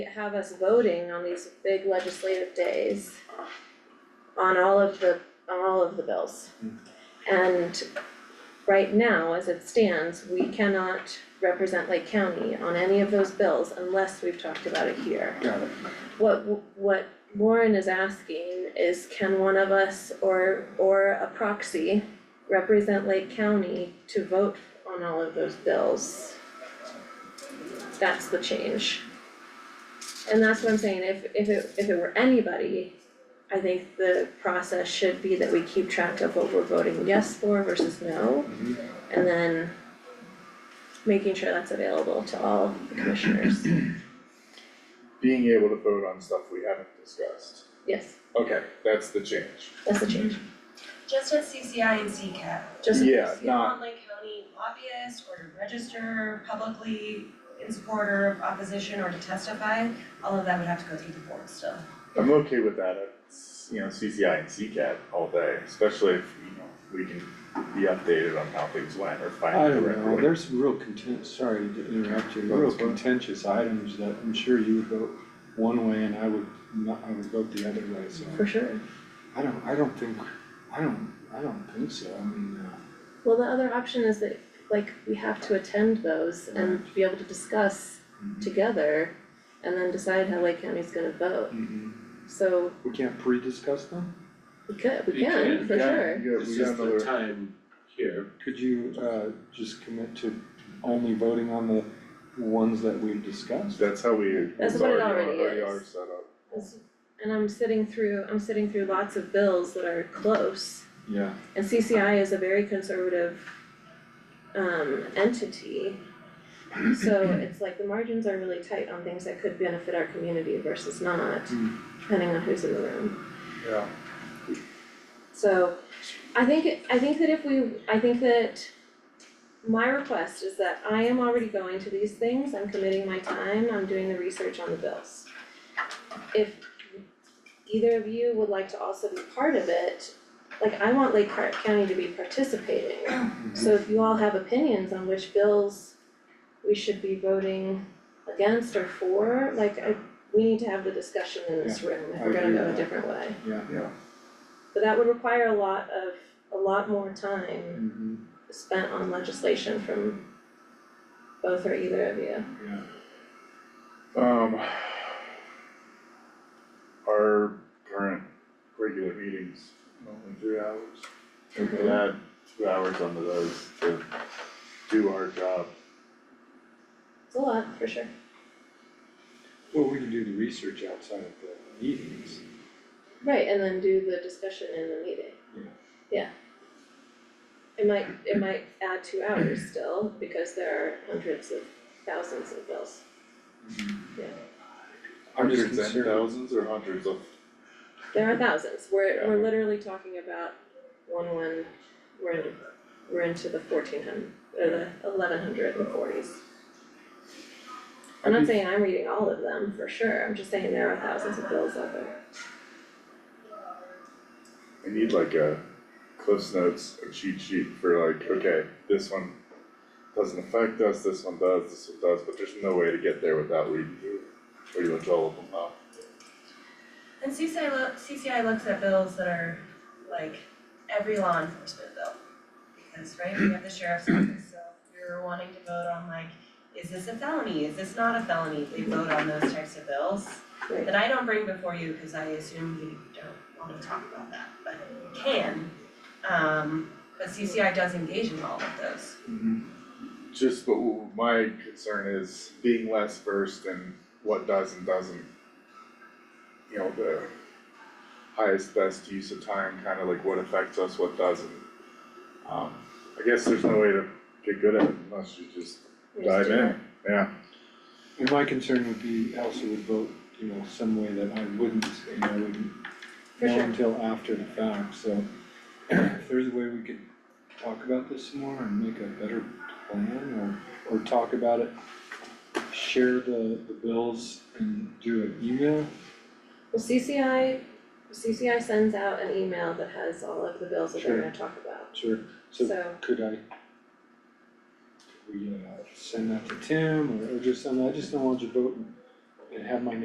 have us voting on these big legislative days on all of the, on all of the bills. And right now, as it stands, we cannot represent Lake County on any of those bills unless we've talked about it here. Got it. What, what Lauren is asking is can one of us or, or a proxy represent Lake County to vote on all of those bills? That's the change. And that's what I'm saying, if, if it, if it were anybody, I think the process should be that we keep track of what we're voting yes for versus no. Mhm. And then making sure that's available to all the commissioners, Being able to vote on stuff we haven't discussed. yes, Okay, that's the change. that's the change, Mm-hmm. Just as CCI and CCAP, just. Yeah, if you not, want Lake County lobbyist or to register publicly in support or opposition or to testify, all of that would have to go through the board still. I'm okay with that, it's, you know, CCI and CCAT all day, especially if, you know, we can be updated on how things went or find I the don't right know, way. there's real content, sorry to interrupt you, real That's fine. contentious items that I'm sure you would vote one way and I would not, I would vote the other way, so. For sure, I don't, I don't think, I don't, I don't think so, I mean, uh, well, the other option is that, like, we have to attend those and be able to discuss uh, together and then decide how Lake County's gonna vote, mhm. so we can't pre-discuss them? we could, we You can, can, for sure. Yeah, This we is got the another, time here, Could you, uh, just commit to only voting on the ones that we've discussed? that's how we, That's it's what it already, already already is. are set up. That's- And I'm sitting through, I'm sitting through lots of bills that are close, Yeah, and CCI is a very conservative um entity. So it's like the margins are really tight on things that could benefit our community versus not, Hmm. depending on who's in the room. Yeah. So I think, I think that if we, I think that my request is that I am already going to these things, I'm committing my time, I'm doing the research on the bills. If either of you would like to also be part of it, like I want Lake Hart County to be participating. Mm-hmm. So if you all have opinions on which bills we should be voting against or for, like I, we need to have the discussion in this room if I we're gonna agree go a with that. different way. yeah. But that would require a lot of, a lot more time Mhm, spent on legislation from both or either of you. yeah. Um. Our current regular meetings, only three hours. We could add two hours onto those to do our job. It's a lot, for sure. Well, we can do the research outside of the meetings. Right, and then do the discussion in the meeting. Yeah. Yeah. It might, it might add two hours still, because there are hundreds of thousands of bills. I'm Hundreds just and concerned- thousands or hundreds of, There are thousands, we're, we're Yeah. literally talking about one, one, we're into, we're into the fourteen hundred, or the eleven hundred and forties. I'm not saying I'm reading all of them for sure, I'm just saying there are thousands of bills out there. I need like a Cliff's Notes, a cheat sheet for like, okay, this one doesn't affect us, this one does, this one does, but there's no way to get there without reading through it. Pretty much all of them now. And CCI lo- CCI looks at bills that are like every law enforcement bill. Because, right, we have the sheriff's office, so if you're wanting to vote on like, is this a felony, is this not a felony, they vote on those types of bills. Right. That I don't bring before you, cause I assume you don't wanna talk about that, but can. Um, but CCI does engage in all of those. Just, but w- my concern is being less versed in what does and doesn't. You know, the highest, best use of time, kind of like what affects us, what doesn't. Um, I guess there's no way to get good at it unless you just We just dive do that. in, yeah. And my concern would be Elsa would vote, you know, some way that I wouldn't, and I wouldn't For know sure. until after the fact, so. If there's a way we could talk about this some more and make a better plan or, or talk about it, share the, the bills and do an email, Well, CCI, CCI sends out an email that has all of the bills that they're Sure. gonna talk about, sure, so. so could I? Could we, uh, send that to Tim or or just something, I just don't want you voting it had my name